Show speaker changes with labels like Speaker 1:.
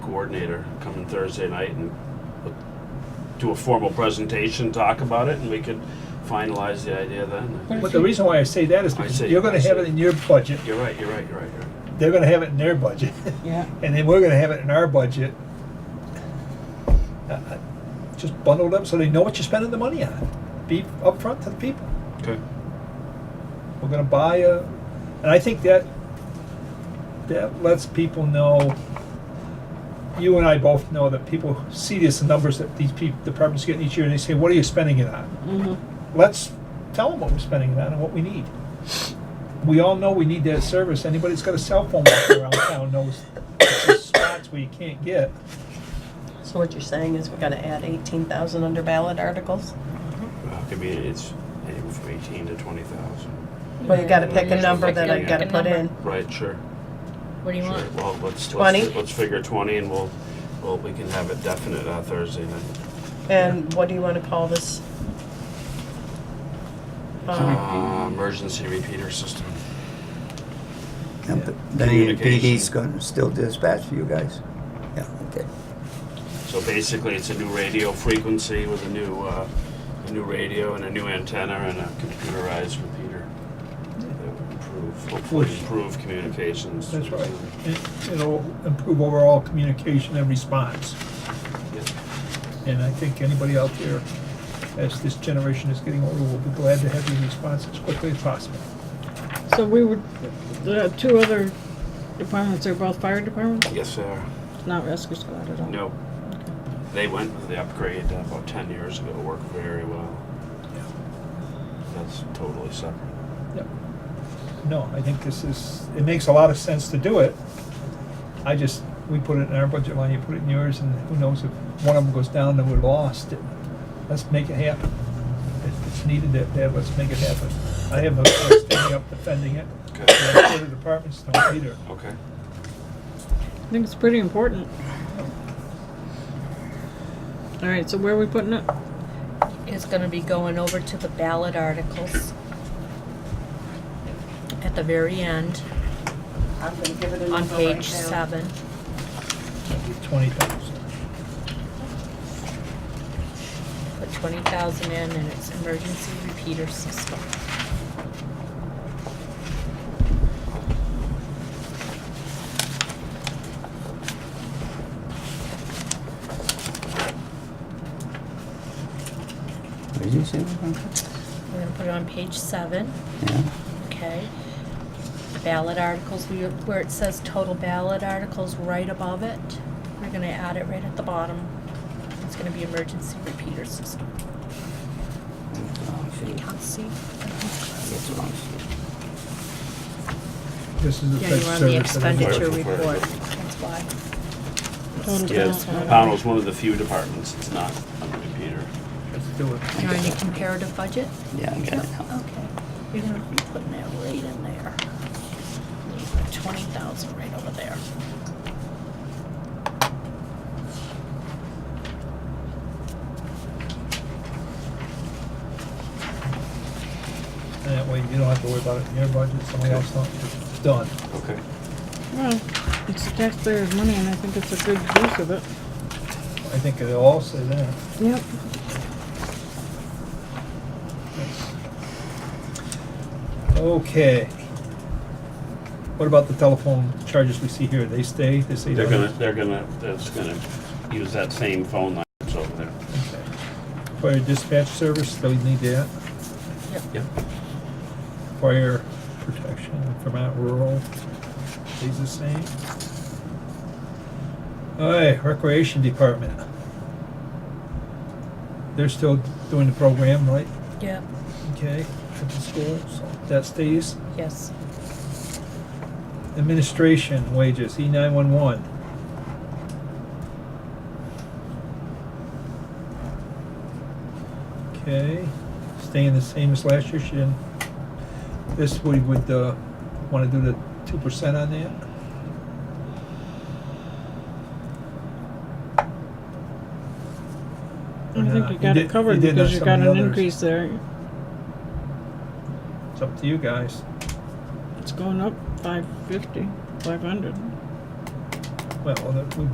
Speaker 1: coordinator coming Thursday night and do a formal presentation, talk about it, and we could finalize the idea then.
Speaker 2: But the reason why I say that is
Speaker 1: I
Speaker 2: because
Speaker 1: see,
Speaker 2: you're gonna
Speaker 1: I
Speaker 2: have it
Speaker 1: see.
Speaker 2: in your budget,
Speaker 1: You're right, you're right, you're right, you're right.
Speaker 2: they're gonna have it in their budget,
Speaker 3: Yeah,
Speaker 2: and then we're gonna have it in our budget. Uh, uh, Just bundled up so they know what you're spending the money on. Be upfront to the people.
Speaker 1: Okay.
Speaker 2: We're gonna buy a, and I think that, that lets people know, you and I both know that people see this numbers that these people, departments get each year, and they say, what are you spending it on?
Speaker 3: mhm.
Speaker 2: let's tell them what we're spending it on and what we need. We all know we need that service. Anybody that's got a cell phone out around town knows the spots we can't get.
Speaker 3: So what you're saying is we gotta add eighteen thousand under ballot articles?
Speaker 1: Well, it could be, Uh, it's anywhere from eighteen to twenty thousand.
Speaker 3: Well, you gotta pick
Speaker 1: Yeah,
Speaker 3: a
Speaker 1: you
Speaker 3: number
Speaker 1: pick
Speaker 3: that
Speaker 1: a-
Speaker 3: I
Speaker 1: pick
Speaker 3: gotta
Speaker 4: a
Speaker 3: put
Speaker 4: number.
Speaker 3: in.
Speaker 1: Right, sure.
Speaker 4: What do you
Speaker 1: Sure.
Speaker 4: want?
Speaker 1: Well, let's,
Speaker 3: Twenty?
Speaker 1: let's, let's figure twenty and we'll, well, we can have it definite on Thursday night.
Speaker 3: And what do you wanna call this? Uh,
Speaker 1: Uh, emergency repeater system.
Speaker 5: And p- Then the PD's gonna still dispatch for you guys? Yeah, okay.
Speaker 1: So basically, it's a new radio frequency with a new, uh, a new radio and a new antenna and a computerized repeater. That would improve, hopefully
Speaker 2: Which-
Speaker 1: improve communications.
Speaker 2: That's right. It- It'll improve overall communication and response.
Speaker 1: Yeah.
Speaker 2: And I think anybody out there, as this generation is getting older, will be glad to have your response as quickly as possible.
Speaker 4: So we were, the two other departments are both fire departments,
Speaker 1: Yes, sir.
Speaker 4: not rescue squad at all?
Speaker 1: No. They went with the upgrade uh, about ten years ago, worked very well. That's totally separate.
Speaker 2: Yep. No, I think this is, it makes a lot of sense to do it. I just, we put it in our budget line, you put it in yours, and who knows if one of them goes down, then we're lost. Let's make it happen. If it's needed that bad, let's make it happen. I have no problem standing up defending it.
Speaker 1: Okay.
Speaker 2: and The other departments don't either.
Speaker 1: Okay.
Speaker 4: I think it's pretty important. All right, so where are we putting it?
Speaker 6: is gonna be going over to the ballot articles at the very end,
Speaker 3: I'm gonna give it a
Speaker 6: on
Speaker 3: number
Speaker 6: page
Speaker 3: right now.
Speaker 6: seven.
Speaker 2: Twenty thousand.
Speaker 6: Put twenty thousand in and it's emergency repeater system.
Speaker 5: What did you say? Veronica?
Speaker 6: We're gonna put it on page seven,
Speaker 5: Yeah,
Speaker 6: okay? Ballot articles, we- where it says total ballot articles, right above it, we're gonna add it right at the bottom. It's gonna be emergency repeater system.
Speaker 5: that's the wrong
Speaker 6: You
Speaker 5: sheet.
Speaker 6: can't see.
Speaker 5: That's the wrong sheet.
Speaker 2: This is the
Speaker 6: Yeah,
Speaker 2: best
Speaker 6: you're on the
Speaker 2: service that
Speaker 6: expenditure
Speaker 2: anybody-
Speaker 6: report, that's why.
Speaker 4: Total
Speaker 1: Yes,
Speaker 4: ballot.
Speaker 1: Pownell's one of the few departments that's not on the repeater.
Speaker 2: Let's do it.
Speaker 6: You're on your comparative budget?
Speaker 5: Yeah, I got it now.
Speaker 6: Okay, you're gonna be putting that right in there. Twenty thousand right over there.
Speaker 2: And that way you don't have to worry about it in your budget, somebody else don't, it's done.
Speaker 1: Okay.
Speaker 4: Well, it's the taxpayers' money and I think it's a good use of it.
Speaker 2: I think it'll all say that.
Speaker 4: Yep.
Speaker 2: Okay. What about the telephone charges we see here? They stay, they stay?
Speaker 1: They're gonna, they're gonna, that's gonna use that same phone line that's over there.
Speaker 2: Okay. Fire dispatch service, they'll need that.
Speaker 1: Yep.
Speaker 2: Fire protection, Vermont rural, stays the same. All right, recreation department. They're still doing the program, right?
Speaker 6: Yeah.
Speaker 2: Okay, at the school, so that stays.
Speaker 6: Yes.
Speaker 2: Administration wages, E nine one one. Okay, staying the same as last year, she didn't, this we would, uh, wanna do the two percent on that? Or
Speaker 4: I
Speaker 2: not?
Speaker 4: think you got
Speaker 2: did-
Speaker 4: it covered
Speaker 2: did on
Speaker 4: because you
Speaker 2: some of
Speaker 4: got
Speaker 2: the
Speaker 4: an
Speaker 2: others.
Speaker 4: increase there.
Speaker 2: It's up to you guys,
Speaker 4: It's going up five fifty, five hundred.
Speaker 2: well, we